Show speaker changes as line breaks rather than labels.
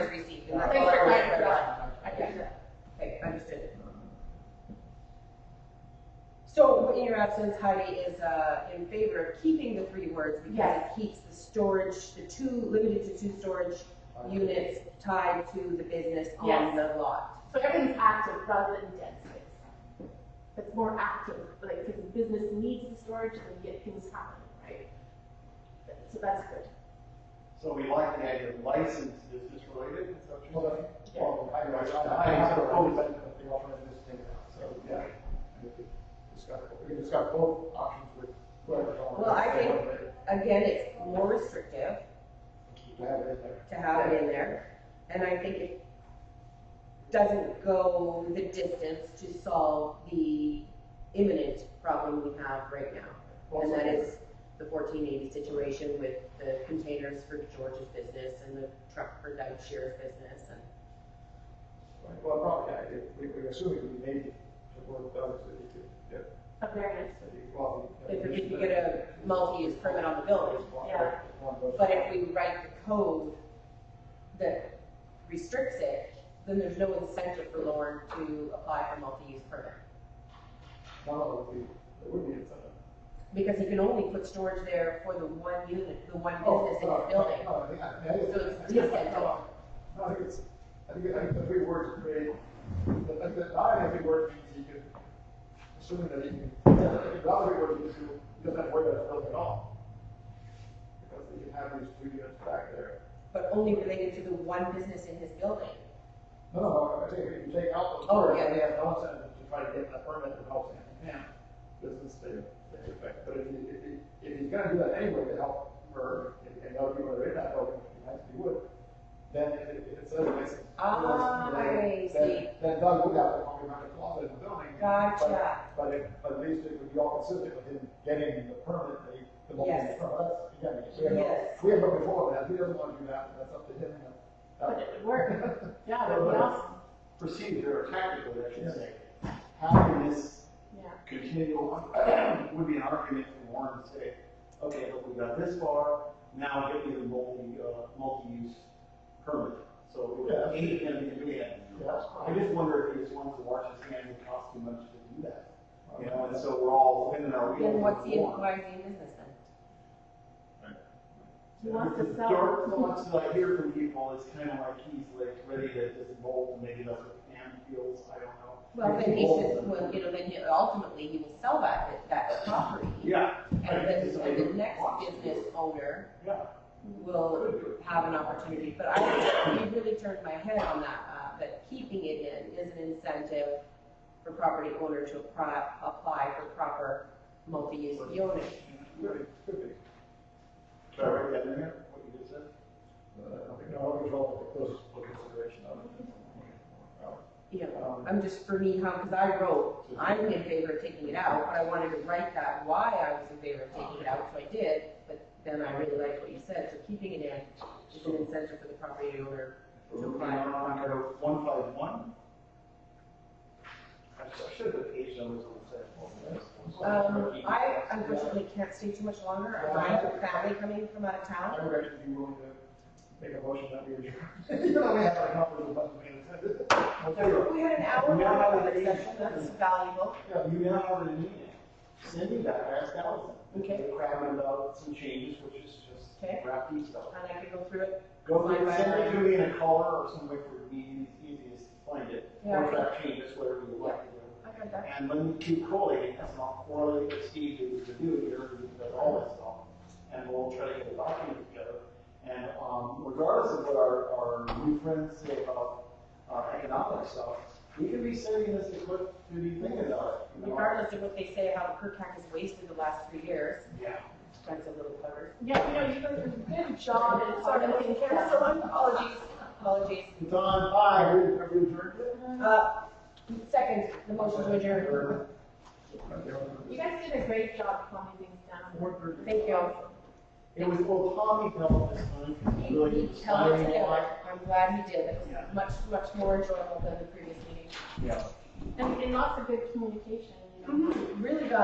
absence, Heidi is, uh, in favor of keeping the three words because it keeps the storage, the two, limited to two storage units tied to the business on
Yes.
the lot.
So everything's active rather than dead space. It's more active, like if the business needs the storage, then you get things happening, right? So that's good.
So we like the idea of licensed business related, is that what you're saying?
Well, I, I, I have a proposal, but they offer this thing now, so, yeah. We can discuss- We can discuss both options with whoever.
Well, I think- Again, it's more restrictive
To have it in there.
to have it in there, and I think it doesn't go the distance to solve the imminent problem we have right now. And
Also,
that is the fourteen eighty situation with the containers for George's business and the truck for Doug Shear's business and.
right, Well, probably, yeah, if, we we're assuming we made it to work those, that you could, yeah,
A variance.
that you probably.
If we could get a multi-use permit on the building,
yeah.
But if we write the code that restricts it, then there's no incentive for Lauren to apply for multi-use permit.
One of them would be, it would be incentive.
Because he can only put storage there for the one unit, the one business in his building.
Oh, oh, yeah, yeah, yeah.
So it's deceptive.
No, I think it's, I think, I think the three words are great. I think that, I think every word means you can, assuming that you can, yeah, I think the other word means you, you don't have to worry about building at all. Because you can have these three units back there.
But only related to the one business in his building.
No, no, I think if you take out the
Oh,
word,
yeah.
they have no incentive to try to get that permit that helps him. Yeah. Business stay, stay effective, but if you, if you, if he's gonna do that anyway to help her, and- and other people are in that program, he has to would, then if it, if it says license.
Ah, I see.
Then Doug would have to come behind a closet in the building. but-
Gotcha.
But it, but at least it would be all consistent with him getting the permit, that he- the, the
Yes.
permit, that's, again, we have no,
Yes.
we have no control of that, he doesn't wanna do that, that's up to him, and
But
that's.
it would work. Yeah, but what else?
Procedure or tactically, I should say, having this
Yeah.
continual, would be an argument for Warren to say, okay, look, we got this far, now get me the multi, uh, multi-use permit. So it
Yeah.
would aid him in doing that.
Yeah, that's fine.
I just wonder if he just wants to wash his hands, it costs too much to do that. You know, and so we're all spinning our wheels.
Then what's the,
for Warren.
why is he in business then?
He wants to sell.
Dark thoughts that I hear from people is kind of like he's like ready to just bolt, and maybe that's what Pam feels, I don't know.
Well, then he
Bolt.
should, well, you know, then he, ultimately he will sell that, that property.
Yeah.
And then,
So
and the
he
next
wants to do
business
it.
owner
Yeah.
will have an opportunity, but I, it really turned my head on that, uh, that keeping it in is an incentive for property owner to apply, apply for proper multi-use unit.
Really, could be.
Should I write that in there, what you just said?
Uh, I think I'll control the closest consideration Um, of it.
You know,
Um,
I'm just, for me, how, because I wrote, I'm in favor of taking it out, but I wanted to write that why I was in favor of taking it out, so I did, but then I really liked what you said, so keeping it in is an incentive for the property owner to
Moving
apply for
on
proper.
to one five one. I should have the page numbers on the
Um,
set.
I unfortunately can't stay too much longer, I have a family coming from out of town.
I would actually be willing to make a motion that we would, you know, we have our numbers and what we
Tell you what,
We had an hour
Yeah,
long
I agree.
public session, that's valuable.
You now have an meeting. Send me that last thousand.
Okay.
They're cramming about some changes, which is
Okay.
just wrap these up.
And I could go through it.
Go through,
Line by
send it
line.
to me in a caller or some way for me, it's easiest to find it.
Yeah.
Or track changes, whatever you like. to
I got
do. And when you keep correlating, that's not correlating with Steve, who's the new here, who does all that stuff. And we'll try to get a document together. And, um, regardless of what our, our new friends say about, uh, economic stuff, we could be sending this to Cliff to be thinking about it. you know?
Regardless of what they say, how the Kirkpac has wasted the last three years,
Yeah.
that's a little clever.
Yeah, you know, you guys did a good job
Sorry,
in sort
I'm
of
taking care of someone, apologies, apologies.
It's on, bye, are you, are you adjourned yet?
Uh, second, the motion to adjourn.
You guys did a great job calming things down.
Thank you.
It was, well, Tommy helped this time,
He,
really
he held it
inspiring a
together,
lot.
I'm glad he did, it was
Yeah.
much, much more enjoyable than the previous meeting.
Yeah.
And, and lots of good communication, you know.
Really good.